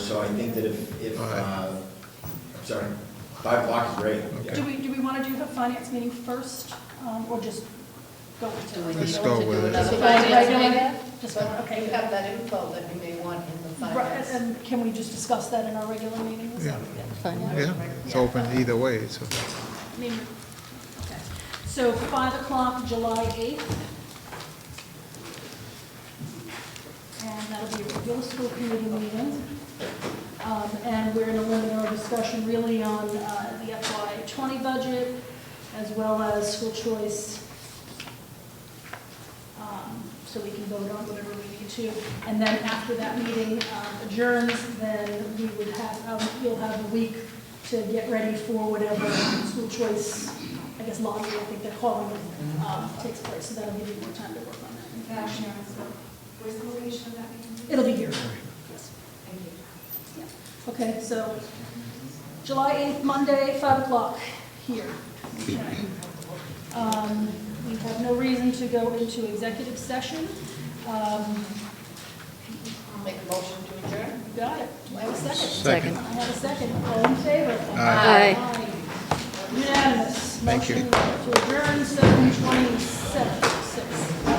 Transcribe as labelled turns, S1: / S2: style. S1: so I think that if, if,
S2: All right.
S1: uh, I'm sorry, five o'clock is great.
S2: Okay.
S3: Do we, do we want to do the finance meeting first, um, or just go into it?
S2: Let's go with it.
S3: Just
S4: Just the
S3: go with
S4: finance
S3: regular-
S4: meeting?
S3: Just, go-
S4: But
S3: okay.
S4: you have that info that you may want in the
S3: Right,
S4: finance.
S3: and can we just discuss that in our regular meeting? Is that-
S2: Yeah.
S5: Fine.
S2: Yeah, it's open either way, so.
S3: I mean, okay. So five o'clock, July eighth. And that'll be a regular school committee meeting. Um, and we're gonna limit our discussion really on, uh, the FY twenty budget as well as school choice. Um, so we can vote on whatever we need to. And then after that meeting um, adjourns, then we would have, um, you'll have a week to get ready for whatever school choice, I guess lottery, I think they're calling it, um, takes place. So that'll give you more time to work on that.
S6: Where's the location of that meeting?
S3: It'll be here. Yes.
S6: Thank you.
S3: Yeah. Okay, so July 8th, Monday, 5 o'clock, here. Okay. Um, We have no reason to go into executive session. Um,
S4: Make a motion to adjourn?
S3: Got it. Do I have a second?
S5: Second.
S3: I have a second. All in favor?
S5: Aye.
S3: Aye. Unanimous.
S2: Thank you.
S3: Motion to adjourn 7:27.